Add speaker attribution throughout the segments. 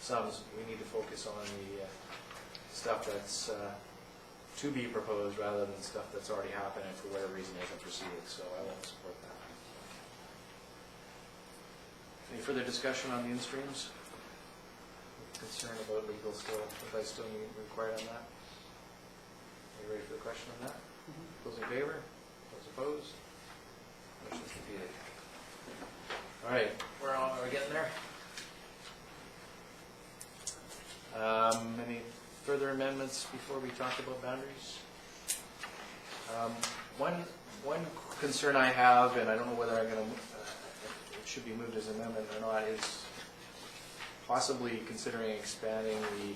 Speaker 1: sums, we need to focus on the uh, stuff that's uh, to be proposed rather than stuff that's already happened and for whatever reason isn't proceeded, so I won't support that. Any further discussion on the in-streams? Concern about legal still, advice still need required on that? Are you ready for the question on that? Those in favor? Those opposed? Motion's defeated. All right, we're on, are we getting there? Um, Any further amendments before we talk about boundaries? Um, One, one concern I have, and I don't know whether I'm going to, it should be moved as an amendment or not, is possibly considering expanding the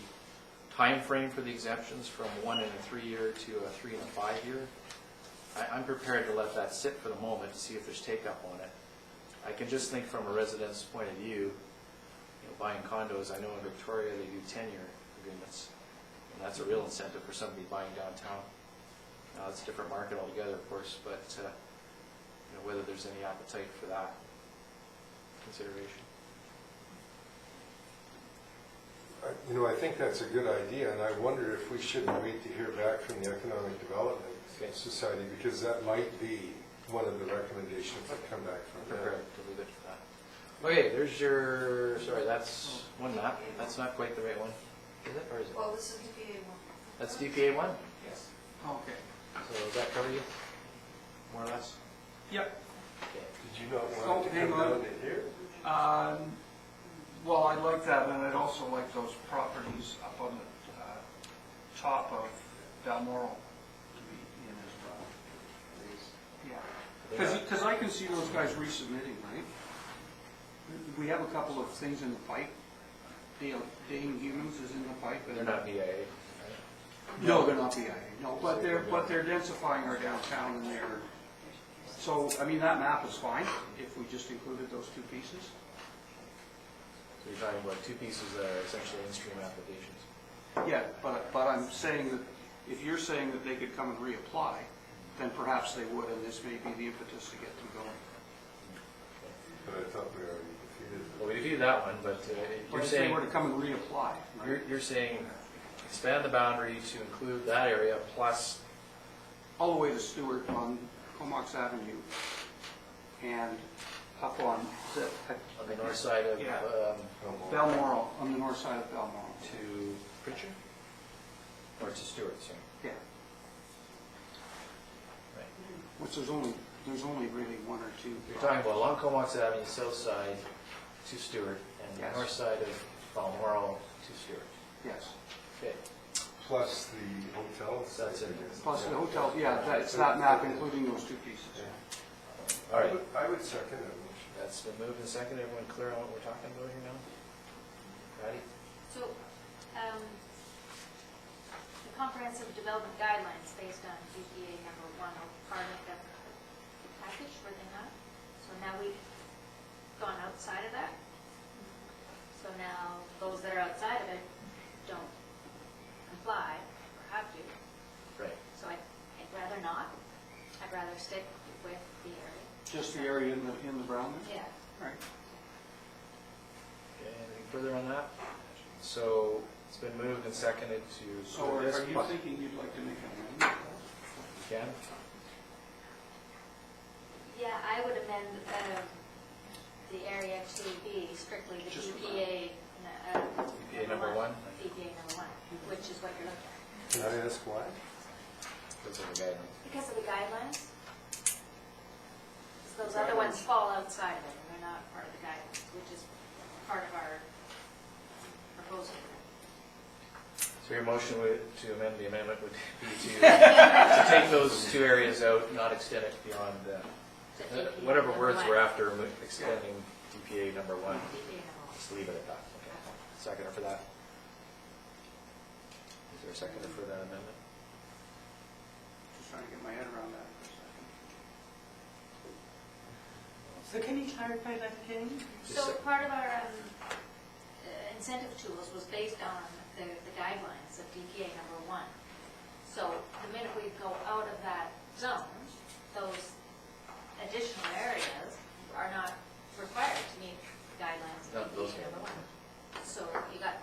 Speaker 1: time frame for the exemptions from one and a three-year to a three and a five-year. I, I'm prepared to let that sit for the moment to see if there's take-up on it. I can just think from a resident's point of view, you know, buying condos, I know in Victoria, they do ten-year agreements. And that's a real incentive for somebody buying downtown. Now, it's a different market altogether, of course, but, uh, you know, whether there's any appetite for that consideration.
Speaker 2: I- Uh, You know, I think that's a good idea, and I wonder if we shouldn't wait to hear back from the Economic Development
Speaker 1: Okay.
Speaker 2: Society, because that might be one of the recommendations that come back
Speaker 1: I'm
Speaker 2: from them.
Speaker 1: prepared to leave it for that. Okay, there's your, sorry, that's one map, that's not quite the right one, is it, or is it?
Speaker 3: Well, this is DPA one.
Speaker 1: That's DPA one,
Speaker 3: Yes.
Speaker 4: Okay.
Speaker 1: so does that cover you, more or less?
Speaker 4: Yep.
Speaker 1: Okay.
Speaker 2: Did you not want it to
Speaker 4: Oh, hang
Speaker 2: come down
Speaker 4: on.
Speaker 2: to here?
Speaker 4: Um, Well, I like that, and I'd also like those properties up on the uh, top of Balmoral to be in as well. Yeah. Because I can see those guys resubmitting, right? We have a couple of things in the pipe. Dale- Dane Humans is in the pipe. and-
Speaker 1: They're not BIA, right?
Speaker 4: No, they're not BIA, no, but they're, but they're densifying our downtown and they're, so, I mean, that map is fine if we just included those two pieces.
Speaker 1: So you're talking about two pieces that are essentially in-stream applications.
Speaker 4: Yeah, but, but I'm saying that, if you're saying that they could come and reapply, then perhaps they would, and this may be the impetus to get them going.
Speaker 2: But I thought we already defeated
Speaker 1: Well, we defeated that one, but uh,
Speaker 4: Or
Speaker 1: you're
Speaker 4: if they
Speaker 1: saying,
Speaker 4: were to come and reapply, right?
Speaker 1: you're, you're saying expand the boundary to include that area plus,
Speaker 4: All the way to Stewart on Comox Avenue and up on
Speaker 1: on the north side of,
Speaker 4: Yeah.
Speaker 1: um,
Speaker 2: it.
Speaker 4: Balmoral, on the north side of Balmoral.
Speaker 1: to Pritchard? Or to Stewart, sorry.
Speaker 4: Yeah.
Speaker 1: Right.
Speaker 4: Which there's only, there's only really one or two.
Speaker 1: You're talking about along Comox Avenue, south side to Stewart, and the
Speaker 4: Yes.
Speaker 1: north side of Balmoral to Stewart.
Speaker 4: Yes,
Speaker 1: Okay,
Speaker 2: Plus the hotel.
Speaker 1: So that's it.
Speaker 4: plus the hotel, yeah, that- it's that map including those two pieces.
Speaker 1: all right.
Speaker 2: I would second that motion.
Speaker 1: That's been moved and seconded. Everyone clear on what we're talking about here now? Patty?
Speaker 5: So, um, the comprehensive development guidelines based on GPA number one are part of the package, were they not? So now we've gone outside of that? So now those that are outside of it don't comply or have to.
Speaker 1: Right.
Speaker 5: So I- I'd rather not. I'd rather stick with the area.
Speaker 4: Just the area in the, in the brown there?
Speaker 5: Yeah.
Speaker 4: Right.
Speaker 1: Okay, Anything further on that? So it's been moved and seconded to.
Speaker 4: So are are
Speaker 1: this
Speaker 4: you
Speaker 1: plus-
Speaker 4: thinking you'd like to make an amendment?
Speaker 1: You can?
Speaker 5: Yeah, I would amend um, the area to be strictly the
Speaker 4: Just the
Speaker 5: EPA. uh,
Speaker 1: EPA number one?
Speaker 5: EPA number one, which is what you're looking at.
Speaker 2: Can I ask why?
Speaker 1: Those are the guidelines.
Speaker 5: Because of the guidelines? 'Cause Those other ones fall outside of it, and they're not part of the guidelines, which is part of our proposal.
Speaker 1: So your motion would- to amend the amendment would be to, to take those two areas out, not extend it beyond, uh,
Speaker 5: So EPA
Speaker 1: whatever
Speaker 5: number
Speaker 1: words
Speaker 5: one,
Speaker 1: we're after, mo- extending DPA number one.
Speaker 5: EPA number one.
Speaker 1: Just leave it at that. Okay. Seconder for that. Is there a seconder for that amendment?
Speaker 4: Just trying to get my head around that for a second.
Speaker 6: So can you clarify that again?
Speaker 1: Just
Speaker 5: So
Speaker 1: a-
Speaker 5: part of our um, uh, incentive tools was based on the the guidelines of DPA number one. So the minute we go out of that zone, those additional areas are not required to meet the guidelines
Speaker 1: Not
Speaker 5: of
Speaker 1: those
Speaker 5: DPA number
Speaker 1: areas.
Speaker 5: one. So you got